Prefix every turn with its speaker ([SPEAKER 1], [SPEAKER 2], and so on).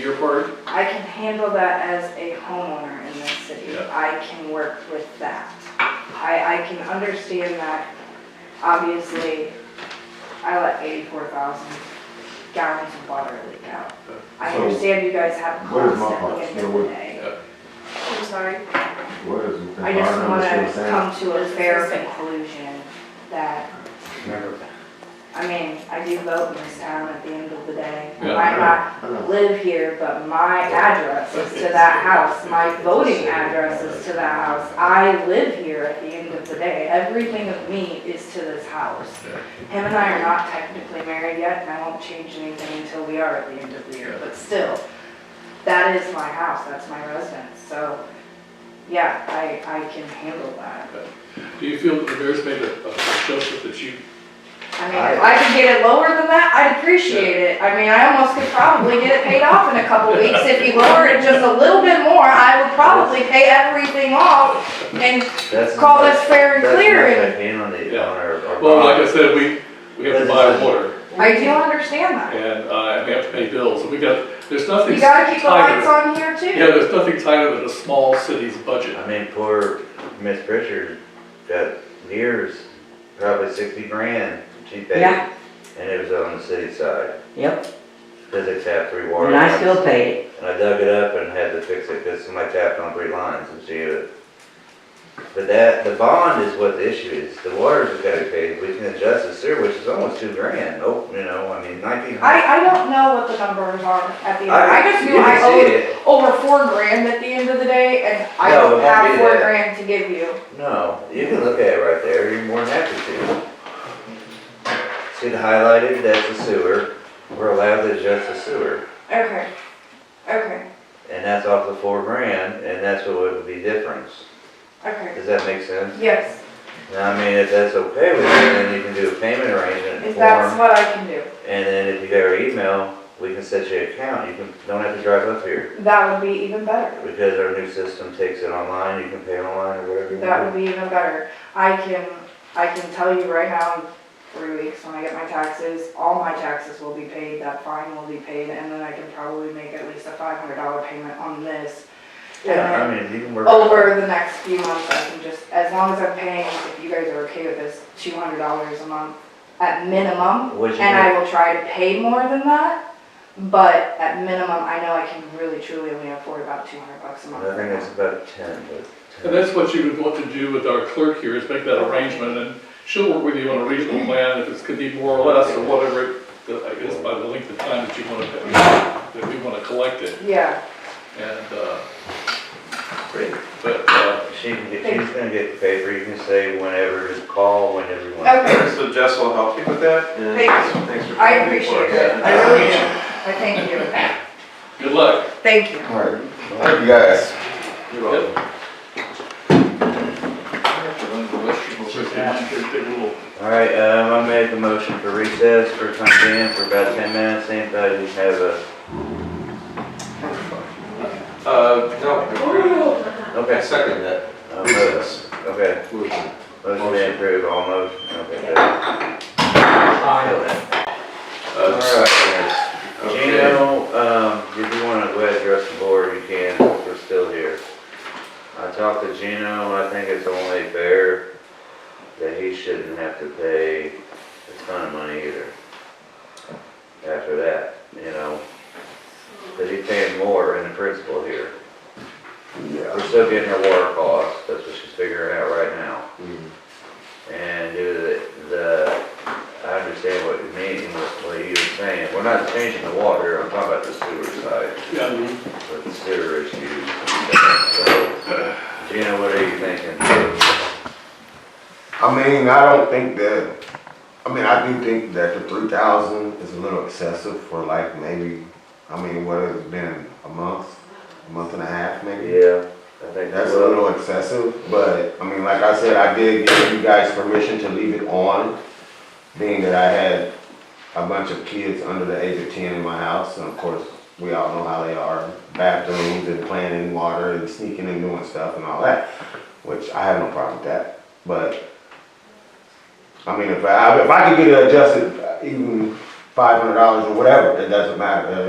[SPEAKER 1] your part?
[SPEAKER 2] I can handle that as a homeowner in this city.
[SPEAKER 1] Yeah.
[SPEAKER 2] I can work with that. I, I can understand that, obviously, I let eighty-four thousand gallons of water leak out. I
[SPEAKER 3] So,
[SPEAKER 2] understand you guys have
[SPEAKER 3] what is
[SPEAKER 2] costs
[SPEAKER 3] my part?
[SPEAKER 2] at the end
[SPEAKER 3] Yeah,
[SPEAKER 2] of the
[SPEAKER 3] what-
[SPEAKER 2] day.
[SPEAKER 4] I'm sorry.
[SPEAKER 3] What is
[SPEAKER 2] I just
[SPEAKER 3] environmental
[SPEAKER 2] wanna
[SPEAKER 3] saying?
[SPEAKER 2] come to a fair conclusion that, I mean, I do vote in this town at the end of the day. I
[SPEAKER 1] Yeah.
[SPEAKER 2] might not live here, but my address is to that house, my voting address is to that house. I live here at the end of the day, everything of me is to this house. Him and I are not technically married yet, and I won't change anything until we are at the end of the year, but still, that is my house, that's my residence, so, yeah, I, I can handle that.
[SPEAKER 1] Do you feel that the mayor's made a, a adjustment that you,
[SPEAKER 2] I mean, if I could get it lower than that, I'd appreciate it. I mean, I almost could probably get it paid off in a couple weeks. If you lower it just a little bit more, I would probably pay everything off and
[SPEAKER 5] That's-
[SPEAKER 2] call this fair and
[SPEAKER 5] that's
[SPEAKER 2] clear.
[SPEAKER 5] not
[SPEAKER 2] And
[SPEAKER 5] a penalty
[SPEAKER 1] Yeah.
[SPEAKER 5] on our- our
[SPEAKER 1] well, like I
[SPEAKER 5] bond.
[SPEAKER 1] said, we, we have to buy water
[SPEAKER 2] I do understand that.
[SPEAKER 1] and, uh, and we have to pay bills and we got, there's nothing.
[SPEAKER 2] You gotta keep the
[SPEAKER 1] tighter-
[SPEAKER 2] lights on here
[SPEAKER 1] Yeah,
[SPEAKER 2] too.
[SPEAKER 1] there's nothing tighter than a small city's budget.
[SPEAKER 5] I mean, poor Miss Pritchard got years, probably sixty grand she paid.
[SPEAKER 6] Yeah.
[SPEAKER 5] And it was on the city side,
[SPEAKER 6] Yep,
[SPEAKER 5] cause they tapped three water
[SPEAKER 6] and I
[SPEAKER 5] lines.
[SPEAKER 6] still paid it.
[SPEAKER 5] And I dug it up and had to fix it, cause somebody tapped on three lines and she had it. But that, the bond is what the issue is, the water's what gotta be paid, we can adjust the sewer, which is almost two grand, oh, you know, I mean, nineteen hundred.
[SPEAKER 2] I, I don't know what the numbers are at the end. I just knew
[SPEAKER 5] you
[SPEAKER 2] I
[SPEAKER 5] can see
[SPEAKER 2] owed
[SPEAKER 5] it.
[SPEAKER 2] over four grand at the end of the day and I
[SPEAKER 5] No, it
[SPEAKER 2] don't
[SPEAKER 5] won't
[SPEAKER 2] have
[SPEAKER 5] be
[SPEAKER 2] four
[SPEAKER 5] that.
[SPEAKER 2] grand to give you.
[SPEAKER 5] No, you can look at it right there, you're more than happy to. See the highlighted, that's the sewer, we're allowed to adjust the sewer,
[SPEAKER 2] Okay, okay,
[SPEAKER 5] and that's off the four grand, and that's what would be difference.
[SPEAKER 2] okay.
[SPEAKER 5] Does that make sense?
[SPEAKER 2] Yes,
[SPEAKER 5] Now, I mean, if that's okay with you, then you can do a payment arrangement
[SPEAKER 2] if that's
[SPEAKER 5] form,
[SPEAKER 2] what I can do,
[SPEAKER 5] and then if you got our email, we can set you an account, you can, don't have to drive up here,
[SPEAKER 2] that would be even better.
[SPEAKER 5] because our new system takes it online, you can pay online or whatever you
[SPEAKER 2] That
[SPEAKER 5] want.
[SPEAKER 2] would be even better. I can, I can tell you right now, in three weeks when I get my taxes, all my taxes will be paid, that fine will be paid, and then I can probably make at least a five hundred dollar payment on this. And
[SPEAKER 5] Yeah,
[SPEAKER 2] then
[SPEAKER 5] I mean, you can work.
[SPEAKER 2] over the next few months, I can just, as long as I'm paying, if you guys are okay with this, two hundred dollars a month at minimum,
[SPEAKER 5] What'd you
[SPEAKER 2] and
[SPEAKER 5] make?
[SPEAKER 2] I will try to pay more than that, but at minimum, I know I can really truly only afford about two hundred bucks a month.
[SPEAKER 5] I think
[SPEAKER 2] right now.
[SPEAKER 5] it's about ten, but. 10.
[SPEAKER 1] And that's what you would want to do with our clerk here, is make that arrangement, and she'll work with you on a reasonable plan, if it's could be more or less, or whatever, it- I guess by the length of time that you want to, that we want to collect it,
[SPEAKER 2] Yeah,
[SPEAKER 1] and, uh,
[SPEAKER 5] Great.
[SPEAKER 1] but, uh,
[SPEAKER 5] She can get, she's gonna get the paper, you can say whenever, just call whenever you want.
[SPEAKER 2] okay.
[SPEAKER 3] So Jess will help you with that? and
[SPEAKER 2] Thank
[SPEAKER 3] thanks for
[SPEAKER 2] I
[SPEAKER 3] coming
[SPEAKER 2] appreciate
[SPEAKER 3] forward.
[SPEAKER 2] it, I really do, I thank you,
[SPEAKER 1] good luck.
[SPEAKER 2] thank you.
[SPEAKER 7] All right, thank you guys.
[SPEAKER 3] You're welcome.
[SPEAKER 5] Alright, um, I made the motion for recess for time being for about ten minutes, same thing, we have a,
[SPEAKER 3] Uh, no, I
[SPEAKER 5] okay.
[SPEAKER 3] second that.
[SPEAKER 5] uh, vote. Okay, motion been approved, all motion, okay. good. Alright,
[SPEAKER 3] Okay.
[SPEAKER 5] Gino, um, if you wanna go ahead and address the board, you can, we're still here. I talked to Gino, I think it's only fair that he shouldn't have to pay a ton of money either. After that, you know, cause he's paying more in the principal here.
[SPEAKER 7] Yeah.
[SPEAKER 5] We're still getting our water costs, that's what she's figuring out right now.
[SPEAKER 7] Mm.
[SPEAKER 5] And do the, the, I understand what you mean, what what you were saying, we're not changing the water, I'm talking about the sewer side,
[SPEAKER 1] Yeah,
[SPEAKER 5] but the sewer issues. So, Gina, what are you thinking?
[SPEAKER 7] I mean, I don't think that, I mean, I do think that the three thousand is a little excessive for like maybe, I mean, what has it been, a month, a month and a half maybe?
[SPEAKER 5] Yeah, I think.
[SPEAKER 7] That's a little excessive, but, I mean, like I said, I did give you guys permission to leave it on, being that I had a bunch of kids under the age of ten in my house, and of course, we all know how they are, bathrooms and playing in water and sneaking and doing stuff and all that, which I have no problem with that, but, I uh, mean, if I, if I could get it adjusted, even five hundred dollars or whatever, it doesn't matter,